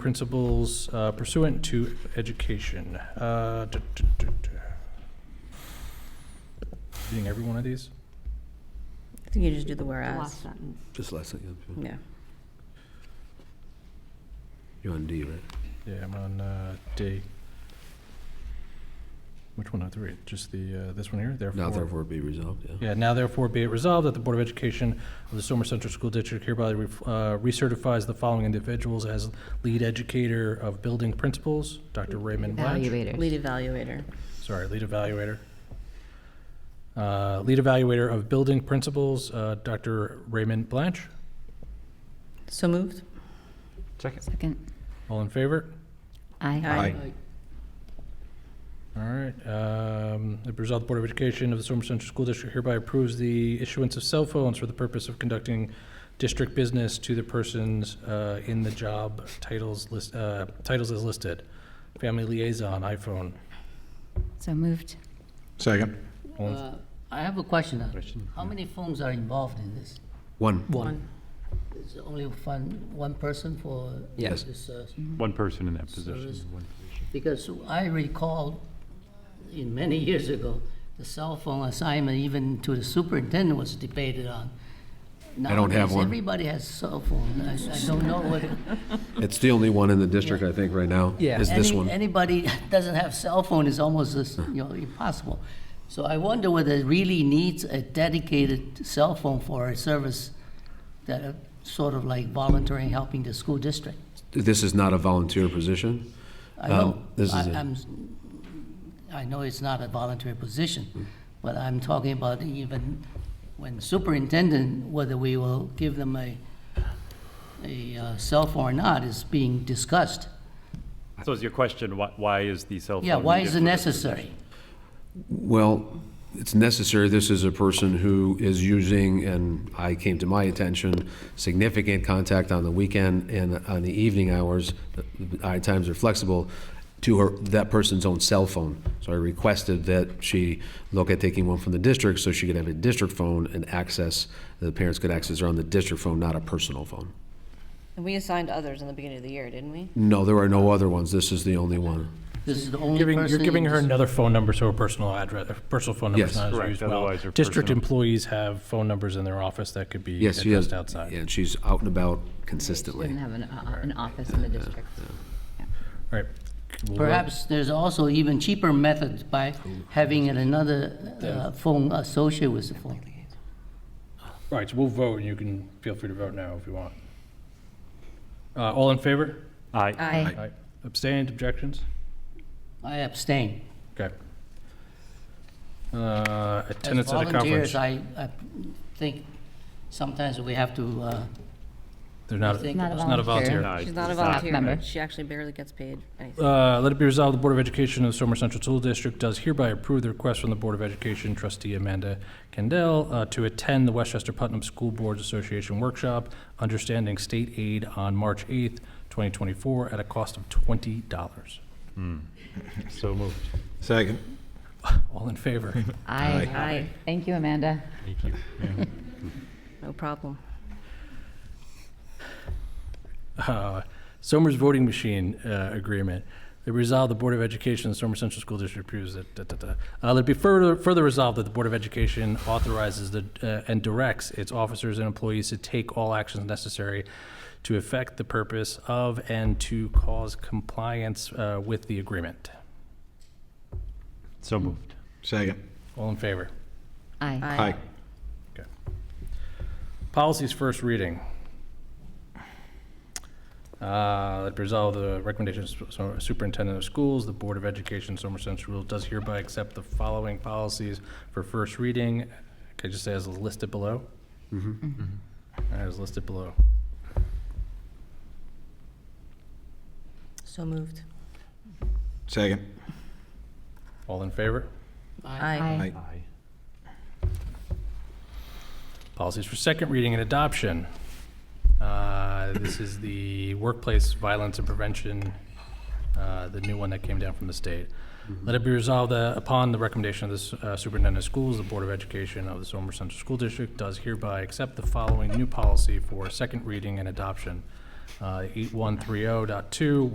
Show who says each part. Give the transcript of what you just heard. Speaker 1: principles uh, pursuant to education. Uh, duh, duh, duh, duh. Reading every one of these?
Speaker 2: I think you just do the
Speaker 3: The
Speaker 2: whereas.
Speaker 3: last sentence.
Speaker 4: Just last thing. yeah.
Speaker 2: Yeah.
Speaker 4: You're on D, right?
Speaker 1: Yeah, I'm on uh, D. Which one of three? Just the, uh, this one here, therefore?
Speaker 4: Now therefore be resolved, yeah.
Speaker 1: Yeah, now therefore be it resolved that the Board of Education of the Somer Central School District hereby re- uh, recertifies the following individuals as lead educator of building principles, Dr. Raymond Blatch.
Speaker 2: Lead
Speaker 3: Evaluators.
Speaker 2: evaluator.
Speaker 1: Sorry, lead evaluator. Uh, Lead evaluator of building principles, uh, Dr. Raymond Blanch.
Speaker 2: So moved?
Speaker 5: Second.
Speaker 3: Second.
Speaker 1: All in favor?
Speaker 3: Aye.
Speaker 5: Aye.
Speaker 1: All right. um, It be resolved, the Board of Education of the Somer Central School District hereby approves the issuance of cell phones for the purpose of conducting district business to the persons uh, in the job titles list, uh, titles as listed. Family liaison, iPhone.
Speaker 3: So moved.
Speaker 5: Second.
Speaker 1: All in-
Speaker 6: Uh, I have a question. now.
Speaker 5: Question,
Speaker 6: How many phones are involved in this?
Speaker 4: One,
Speaker 1: One.
Speaker 6: Is it only one, one person for?
Speaker 4: Yes.
Speaker 6: this, uh,
Speaker 5: One person in that position.
Speaker 6: Service.
Speaker 5: one position.
Speaker 6: Because I recall in many years ago, the cell phone assignment even to the superintendent was debated on.
Speaker 4: I don't have
Speaker 6: Nowadays,
Speaker 4: one.
Speaker 6: Everybody has cell phone. I, I don't know what.
Speaker 4: it's the only one in the district, I think, right now, is this
Speaker 6: Any-
Speaker 4: one.
Speaker 6: Anybody doesn't have cell phone is almost, as, you know, impossible. So I wonder whether it really needs a dedicated cell phone for a service that are sort of like volunteering, helping the school district.
Speaker 4: This is not a volunteer position?
Speaker 6: I
Speaker 4: Um,
Speaker 6: know,
Speaker 4: this is
Speaker 6: I-
Speaker 4: a-
Speaker 6: I'm, s- I know it's not a voluntary
Speaker 4: Mm.
Speaker 6: position, but I'm talking about even when superintendent, whether we will give them a, a uh, cell phone or not is being discussed.
Speaker 5: So is your question, why, why is the cell phone?
Speaker 6: Yeah, why is it
Speaker 5: different?
Speaker 6: necessary?
Speaker 4: Well, it's necessary, this is a person who is using, and I came to my attention, significant contact on the weekend and on the evening hours, the hour times are flexible, to her, that person's own cell phone. So I requested that she look at taking one from the district, so she could have a district phone and access, the parents could access her on the district phone, not a personal phone.
Speaker 2: And we assigned others in the beginning of the year, didn't we?
Speaker 4: No, there are no other ones, this is the only one.
Speaker 6: This is the only person.
Speaker 1: Giving, you're
Speaker 6: in
Speaker 1: giving her
Speaker 6: this-
Speaker 1: another phone number, so her personal address, her personal phone number's
Speaker 4: Yes.
Speaker 1: not as
Speaker 5: Correct,
Speaker 1: used well.
Speaker 5: otherwise her
Speaker 1: District
Speaker 5: personal-
Speaker 1: employees have phone numbers in their office that could be
Speaker 4: Yes, she has.
Speaker 1: addressed outside.
Speaker 4: Yeah, and she's out and about
Speaker 3: Didn't
Speaker 4: consistently.
Speaker 3: have an, uh, an office in the district.
Speaker 1: All right. We'll vote.
Speaker 6: Perhaps there's also even cheaper method by having another uh, phone associated with the phone.
Speaker 1: All right, so we'll vote, and you can feel free to vote now if you want. Uh, All in favor?
Speaker 5: Aye.
Speaker 3: Aye.
Speaker 1: Aye. Abstained, objections?
Speaker 6: I abstain.
Speaker 1: Okay. Uh,
Speaker 6: As
Speaker 1: Attendance at a conference.
Speaker 6: volunteers, I, I think sometimes we have to, uh,
Speaker 1: They're not, it's
Speaker 6: think
Speaker 3: Not a
Speaker 1: not a volunteer.
Speaker 3: volunteer.
Speaker 5: No,
Speaker 2: She's not a
Speaker 5: it's not.
Speaker 2: volunteer.
Speaker 3: member.
Speaker 2: She actually barely gets paid anything.
Speaker 1: Uh, Let it be resolved, the Board of Education of the Somer Central School District does hereby approve the request from the Board of Education trustee Amanda Kendall uh, to attend the Westchester Putnam School Boards Association Workshop, Understanding State Aid on March 8th, 2024, at a cost of $20.
Speaker 5: So moved.
Speaker 7: Second.
Speaker 1: All in favor?
Speaker 3: Aye.
Speaker 2: Aye,
Speaker 3: Thank you, Amanda.
Speaker 5: Thank you.
Speaker 2: no problem.
Speaker 1: uh, Somers voting machine uh, agreement. They resolve the Board of Education, of the Somers Central School District approves it. da, da, da. Uh, Let it be further, further resolved that the Board of Education authorizes the, uh, and directs its officers and employees to take all actions necessary to effect the purpose of and to cause compliance uh, with the agreement.
Speaker 5: So moved.
Speaker 7: Second.
Speaker 1: All in favor?
Speaker 3: Aye.
Speaker 7: Aye.
Speaker 1: Policies first reading. Uh, Let it be resolved the recommendations of the superintendent of schools, the Board of Education, Somer Central Rule does hereby accept the following policies for first reading. Can I just say as listed below? As listed below.
Speaker 2: So moved.
Speaker 7: Second.
Speaker 1: All in favor?
Speaker 2: Aye.
Speaker 7: Aye.
Speaker 5: Aye.
Speaker 1: Policies for second reading and adoption. Uh, This is the workplace violence and prevention, uh, the new one that came down from the state. Let it be resolved that upon the recommendation of the s- uh, superintendent of schools, the Board of Education of the Somer Central School District does hereby accept the following new policy for second reading and adoption. uh, 8130.2,